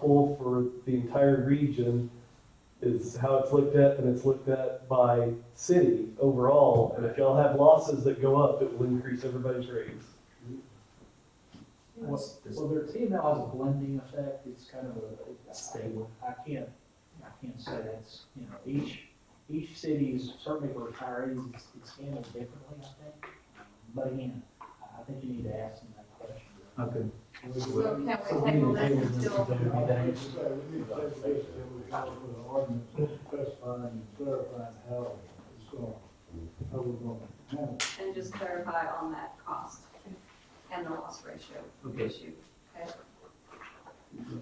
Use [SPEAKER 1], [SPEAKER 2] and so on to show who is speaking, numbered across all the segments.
[SPEAKER 1] pool for the entire region is how it's looked at, and it's looked at by city overall. And if y'all have losses that go up, it will increase everybody's rates.
[SPEAKER 2] What's this?
[SPEAKER 3] Well, their TML has a blending effect, it's kind of a. Stable. I can't, I can't say that's, you know, each, each city's, certainly for retirees, it's, it's handled differently, I think. But again, I I think you need to ask them that question.
[SPEAKER 2] Okay.
[SPEAKER 4] So can
[SPEAKER 5] So
[SPEAKER 4] we table
[SPEAKER 5] need to
[SPEAKER 4] this
[SPEAKER 5] table this until
[SPEAKER 4] until,
[SPEAKER 5] we
[SPEAKER 2] Okay.
[SPEAKER 5] need to- we need to table this until we come up with an ordinance specifying and clarifying how it's going, how we're going to handle it.
[SPEAKER 4] and just clarify on that cost and the loss ratio
[SPEAKER 2] Okay.
[SPEAKER 4] issue? Okay,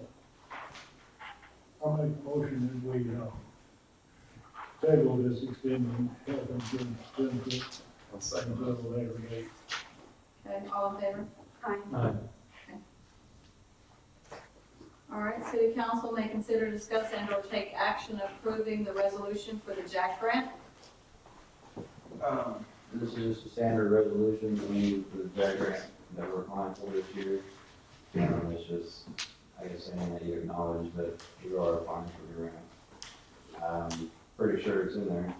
[SPEAKER 5] I make a motion that we, uh, table this extending health insurance benefit
[SPEAKER 2] I'll second
[SPEAKER 5] until a later date.
[SPEAKER 4] Okay. all in favor? Aye.
[SPEAKER 2] Aye.
[SPEAKER 4] All right, city council may consider, discuss, and or take action approving the resolution for the Jack Grant.
[SPEAKER 6] Um, This is just a standard resolution that we need for the Jack Grant that we're applying for this year. Um, it's just, I guess, saying that you acknowledge that you are applying for the grant. Um, pretty sure it's in there.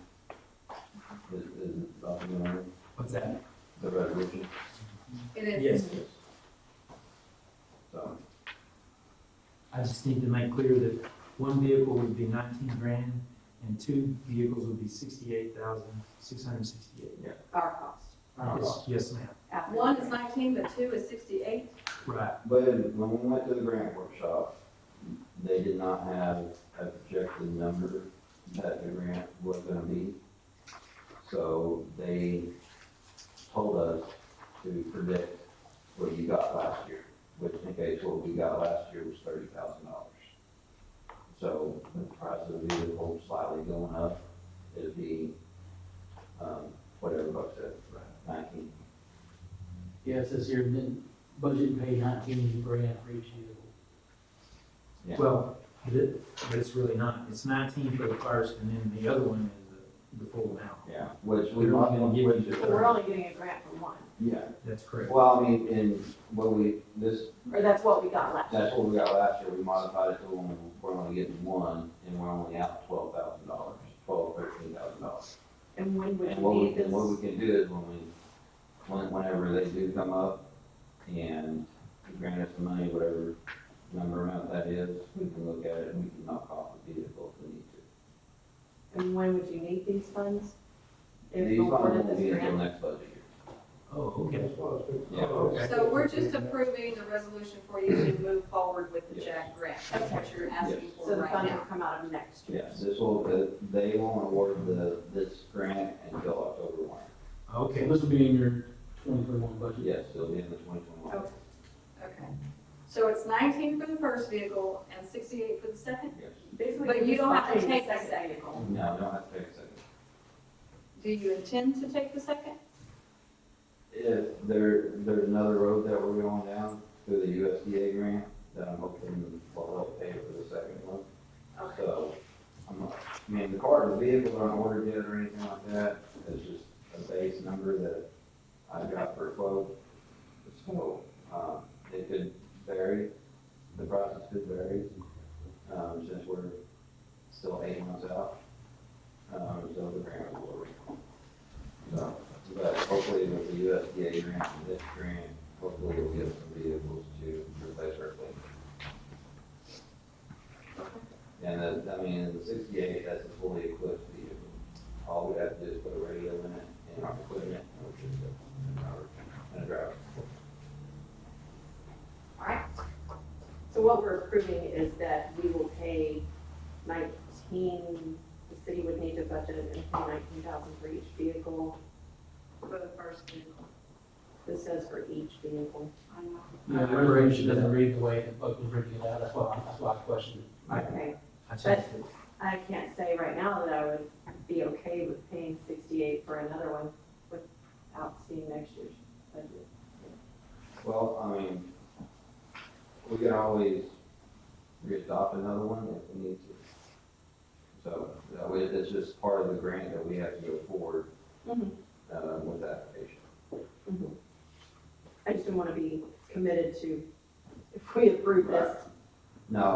[SPEAKER 6] Is, is it something in there,
[SPEAKER 2] What's that?
[SPEAKER 6] the resolution,
[SPEAKER 4] It is.
[SPEAKER 2] Yes.
[SPEAKER 6] so,
[SPEAKER 2] I just need to make clear that one vehicle would be nineteen grand and two vehicles would be sixty-eight thousand, six hundred and sixty-eight.
[SPEAKER 4] Our cost.
[SPEAKER 7] Uh-huh.
[SPEAKER 6] Our
[SPEAKER 2] Yes, yes, ma'am.
[SPEAKER 4] One is nineteen, but two is sixty-eight.
[SPEAKER 2] Right.
[SPEAKER 6] but when we went to the grant workshop, they did not have a projected number that the grant was gonna be. So they told us to predict what you got last year, which in case what we got last year was thirty thousand dollars. So the price of the vehicle slightly going up, it'd be, um, whatever Buck said, nineteen.
[SPEAKER 7] Yeah, it says here, then budget and pay nineteen grand for each
[SPEAKER 6] Yeah.
[SPEAKER 2] Well, it is- but it's really not. It's nineteen for the first and then the other one is the, the full amount.
[SPEAKER 6] Yeah, which we.
[SPEAKER 2] They're not gonna give you
[SPEAKER 6] which-
[SPEAKER 2] the- We're
[SPEAKER 5] only getting a grant for one,
[SPEAKER 6] Yeah,
[SPEAKER 2] That's correct.
[SPEAKER 6] well, I mean, in what we, this,
[SPEAKER 5] or that's what we got last
[SPEAKER 6] that's what we got last year, we modified it to only, we're only getting one, and we're only out twelve thousand dollars, twelve, thirteen thousand dollars.
[SPEAKER 5] And when
[SPEAKER 6] And what we, and what we can do is when we, when, whenever they do come up and grant us the money, whatever number amount that is, we can look at it and we can knock off the vehicle if we need to.
[SPEAKER 5] and when would you need these funds?
[SPEAKER 6] These funds won't be until next budget year.
[SPEAKER 2] Oh, okay.
[SPEAKER 6] Yeah, okay.
[SPEAKER 4] So we're just approving the resolution for you to move forward with the
[SPEAKER 6] Yes.
[SPEAKER 4] Jack Grant. That's what you're asking
[SPEAKER 6] Yes.
[SPEAKER 4] for right now.
[SPEAKER 5] come out of next
[SPEAKER 6] Yes, this will, the- they won't award the, this grant until October one.
[SPEAKER 2] Okay.
[SPEAKER 7] year. This will be in your twenty twenty-one budget.
[SPEAKER 6] Yes, it'll be in the twenty twenty-one.
[SPEAKER 4] Okay. So it's nineteen for the first vehicle and sixty-eight for the second?
[SPEAKER 6] Yes.
[SPEAKER 5] Basically,
[SPEAKER 4] But you don't have to take the
[SPEAKER 5] that.
[SPEAKER 4] second.
[SPEAKER 6] No, we don't have to take a second.
[SPEAKER 4] Do you intend to take the second?
[SPEAKER 6] If there, there's another road that we're going down through the USDA grant, that I'm hoping will help pay for the second one.
[SPEAKER 4] Okay.
[SPEAKER 6] So, I'm, not- I mean, the car, the vehicle aren't ordered yet or anything like that, it's just a base number that I got for a quote. So, um, it could vary, the process could vary, um, since we're still eight months out. Um, so the grant was ordered. So, but hopefully with the USDA grant, and this grant, hopefully we'll get some vehicles to replace our fleet. And that's, I mean, the sixty-eight, that's a fully equipped vehicle. All we have to do is put a radio in it and our equipment, which is a driver, and a driver.
[SPEAKER 8] So what we're approving is that we will pay nineteen, the city would need to budget and pay nineteen thousand for each vehicle.
[SPEAKER 4] For the first vehicle.
[SPEAKER 8] This says for each vehicle.
[SPEAKER 4] I know.
[SPEAKER 7] Yeah, the resolution doesn't read the way that Buck was reading it out, that's why, that's why I questioned it.
[SPEAKER 8] Okay,
[SPEAKER 2] I changed it.
[SPEAKER 8] I can't say right now that I would be okay with paying sixty-eight for another one without seeing next year's budget.
[SPEAKER 6] Well, I mean, we can always re-adopt another one if we need to. So, that way, it's just part of the grant that we have to go forward,
[SPEAKER 8] Mhm.
[SPEAKER 6] uh, with the application.
[SPEAKER 8] I just don't wanna be committed to, if we approve this,
[SPEAKER 6] No,